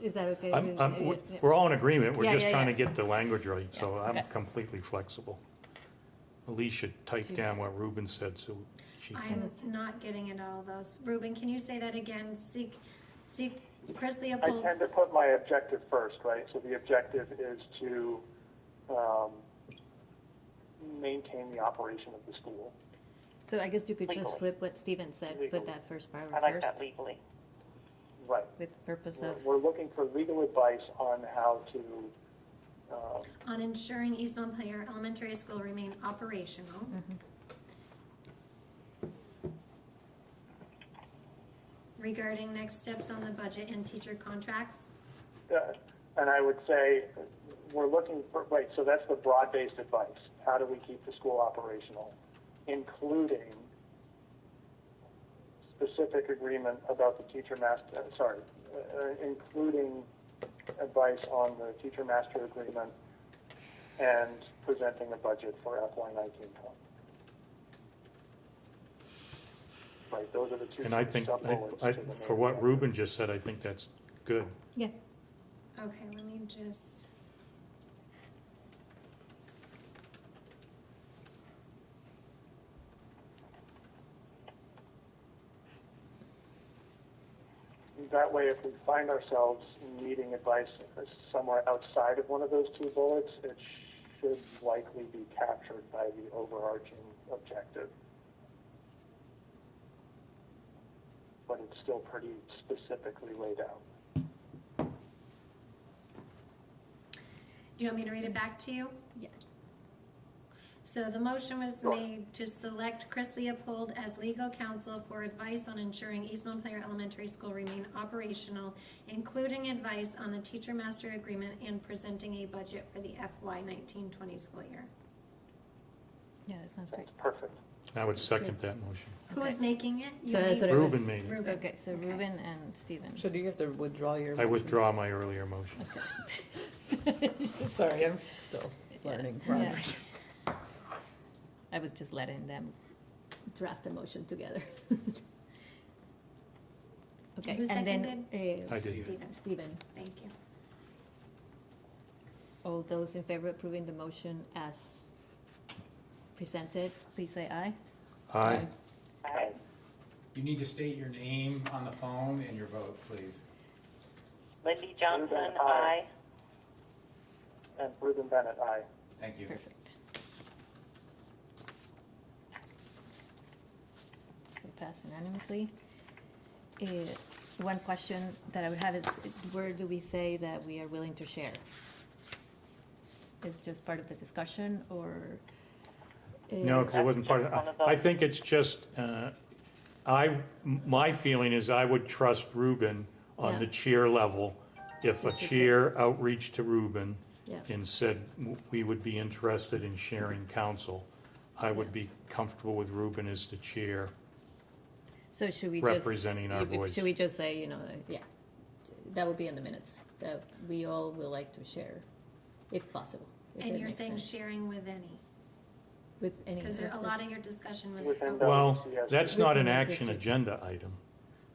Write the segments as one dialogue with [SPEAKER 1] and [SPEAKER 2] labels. [SPEAKER 1] Is that okay?
[SPEAKER 2] I'm,
[SPEAKER 1] with-
[SPEAKER 2] I'm,
[SPEAKER 1] yeah,
[SPEAKER 2] we're-
[SPEAKER 1] yeah.
[SPEAKER 2] we're all in agreement,
[SPEAKER 1] Yeah,
[SPEAKER 2] we're just
[SPEAKER 1] yeah,
[SPEAKER 2] trying to
[SPEAKER 1] yeah.
[SPEAKER 2] get the language right, so
[SPEAKER 1] Yeah,
[SPEAKER 2] I'm
[SPEAKER 1] okay.
[SPEAKER 2] completely flexible. Elise should type
[SPEAKER 1] Two.
[SPEAKER 2] down what Ruben said, so she can,
[SPEAKER 3] I'm not getting it all though. Ruben, can you say that again? Seek, seek, Chris
[SPEAKER 4] I
[SPEAKER 3] Leopold,
[SPEAKER 4] tend to put my objective first, right? So the objective is to um, maintain the operation of the school.
[SPEAKER 1] So I guess you could just
[SPEAKER 5] Legally.
[SPEAKER 1] flip what Steven said, put
[SPEAKER 4] Legally.
[SPEAKER 1] that first
[SPEAKER 5] I
[SPEAKER 1] paragraph
[SPEAKER 5] like that
[SPEAKER 1] first,
[SPEAKER 5] legally.
[SPEAKER 4] Right.
[SPEAKER 1] with the purpose
[SPEAKER 4] We're,
[SPEAKER 1] of,
[SPEAKER 4] we're looking for legal advice on how to, um,
[SPEAKER 3] on ensuring East Montpelier Elementary School remain operational.
[SPEAKER 1] Mm. mm-hmm.
[SPEAKER 3] Regarding next steps on the budget and teacher contracts.
[SPEAKER 4] uh, and I would say, we're looking for, right, so that's the broad-based advice. How do we keep the school operational? Including specific agreement about the teacher master, sorry, uh, including advice on the teacher master agreement and presenting a budget for FY nineteen twenty. Right, those are the two
[SPEAKER 2] and I think,
[SPEAKER 4] sub-bullets
[SPEAKER 2] I, I-
[SPEAKER 4] to the
[SPEAKER 2] for
[SPEAKER 4] main
[SPEAKER 2] what
[SPEAKER 4] objective.
[SPEAKER 2] Ruben just said, I think that's good.
[SPEAKER 1] yeah,
[SPEAKER 3] Okay, let me just.
[SPEAKER 4] That way, if we find ourselves needing advice somewhere outside of one of those two bullets, it should likely be captured by the overarching objective. But it's still pretty specifically laid out.
[SPEAKER 3] Do you want me to read it back to you?
[SPEAKER 1] Yeah.
[SPEAKER 3] So the motion was
[SPEAKER 4] Sure.
[SPEAKER 3] made to select Chris Leopold as legal counsel for advice on ensuring East Montpelier Elementary School remain operational, including advice on the teacher master agreement and presenting a budget for the FY nineteen twenty school year.
[SPEAKER 1] yeah, that sounds great.
[SPEAKER 4] That's perfect.
[SPEAKER 2] I would second that motion.
[SPEAKER 3] Who is
[SPEAKER 1] Okay.
[SPEAKER 3] making it? You
[SPEAKER 1] So that's
[SPEAKER 3] made
[SPEAKER 1] what it was.
[SPEAKER 2] Ruben made it.
[SPEAKER 3] Ruben.
[SPEAKER 1] Okay, so
[SPEAKER 3] Okay.
[SPEAKER 1] Ruben and Steven.
[SPEAKER 6] So do you have to withdraw your?
[SPEAKER 2] I
[SPEAKER 6] motion?
[SPEAKER 2] withdraw my earlier motion.
[SPEAKER 6] Sorry, I'm still learning.
[SPEAKER 1] Yeah.
[SPEAKER 6] Robert.
[SPEAKER 1] I was just letting them draft the motion together. Okay,
[SPEAKER 3] Who
[SPEAKER 1] and then,
[SPEAKER 2] I
[SPEAKER 1] uh,
[SPEAKER 2] did.
[SPEAKER 3] Steven.
[SPEAKER 1] Steven,
[SPEAKER 3] Thank you.
[SPEAKER 1] all those in favor of approving the motion as presented, please say aye.
[SPEAKER 2] Aye,
[SPEAKER 5] Aye.
[SPEAKER 7] You need to state your name on the phone and your vote, please.
[SPEAKER 5] Lindy Johnson,
[SPEAKER 4] Ruben, aye.
[SPEAKER 5] aye.
[SPEAKER 4] And Ruben Bennett, aye.
[SPEAKER 7] Thank you.
[SPEAKER 1] Perfect. So pass unanimously. Eh, One question that I would have is, where do we say that we are willing to share? Is just part of the discussion, or? eh,
[SPEAKER 2] no, because it wasn't part
[SPEAKER 5] One
[SPEAKER 2] of,
[SPEAKER 5] of those.
[SPEAKER 2] I think it's just, uh, I, my feeling is I would trust Ruben on
[SPEAKER 1] Yeah.
[SPEAKER 2] the cheer level. If a
[SPEAKER 1] If it's-
[SPEAKER 2] cheer outreach to Ruben,
[SPEAKER 1] Yeah,
[SPEAKER 2] and said w- we would be interested in sharing counsel, I would
[SPEAKER 1] Yeah.
[SPEAKER 2] be comfortable with Ruben as the chair.
[SPEAKER 1] so should we just?
[SPEAKER 2] Representing our
[SPEAKER 1] if we-
[SPEAKER 2] voice.
[SPEAKER 1] Should we just say, you know, eh, yeah, that would be in the minutes, that we all will like to share, if possible. if
[SPEAKER 3] And
[SPEAKER 1] it
[SPEAKER 3] you're
[SPEAKER 1] makes
[SPEAKER 3] saying
[SPEAKER 1] sense,
[SPEAKER 3] sharing with any,
[SPEAKER 1] With any.
[SPEAKER 3] because a lot
[SPEAKER 1] this-
[SPEAKER 3] of your discussion was.
[SPEAKER 4] Within the-
[SPEAKER 2] Well,
[SPEAKER 4] yes.
[SPEAKER 2] that's not an
[SPEAKER 1] Within our
[SPEAKER 2] action
[SPEAKER 1] district.
[SPEAKER 2] agenda item,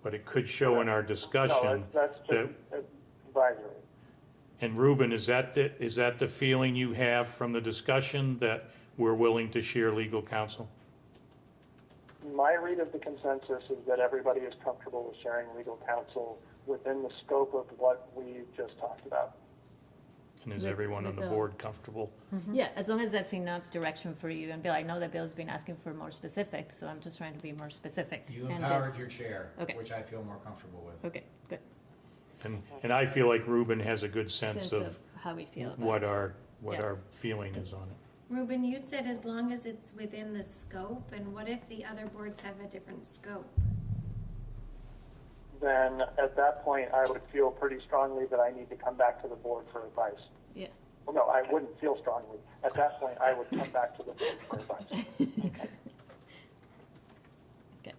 [SPEAKER 2] but it could show in our discussion.
[SPEAKER 4] No, that's that's just advisory.
[SPEAKER 2] And Ruben, is that, the- is that the feeling you have from the discussion, that we're willing to share legal counsel?
[SPEAKER 4] My read of the consensus is that everybody is comfortable with sharing legal counsel within the scope of what we just talked about.
[SPEAKER 2] And is
[SPEAKER 1] With-
[SPEAKER 2] everyone on
[SPEAKER 1] with uh,
[SPEAKER 2] the
[SPEAKER 1] the-
[SPEAKER 2] board comfortable?
[SPEAKER 1] Yeah, as long as that's enough direction for you, and Bill, I know that Bill's been asking for more specific, so I'm just trying to be more specific.
[SPEAKER 7] You
[SPEAKER 1] and
[SPEAKER 7] empowered
[SPEAKER 1] this-
[SPEAKER 7] your chair,
[SPEAKER 1] Okay.
[SPEAKER 7] which I feel more comfortable with.
[SPEAKER 1] Okay, good.
[SPEAKER 2] And, and I feel like Ruben has a good sense of
[SPEAKER 1] How we feel about
[SPEAKER 2] what
[SPEAKER 1] it.
[SPEAKER 2] our, what
[SPEAKER 1] Yeah.
[SPEAKER 2] our feeling is on it.
[SPEAKER 3] Ruben, you said as long as it's within the scope, and what if the other boards have a different scope?
[SPEAKER 4] Then at that point, I would feel pretty strongly that I need to come back to the board for advice.
[SPEAKER 1] Yeah,
[SPEAKER 4] Well, no, I wouldn't feel strongly. At that point, I would come back to the board for advice.
[SPEAKER 1] okay.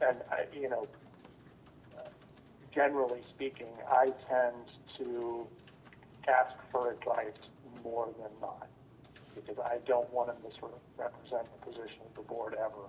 [SPEAKER 4] And I, you know, generally speaking, I tend to ask for advice more than not because I don't want to misrepresent the position of the board ever.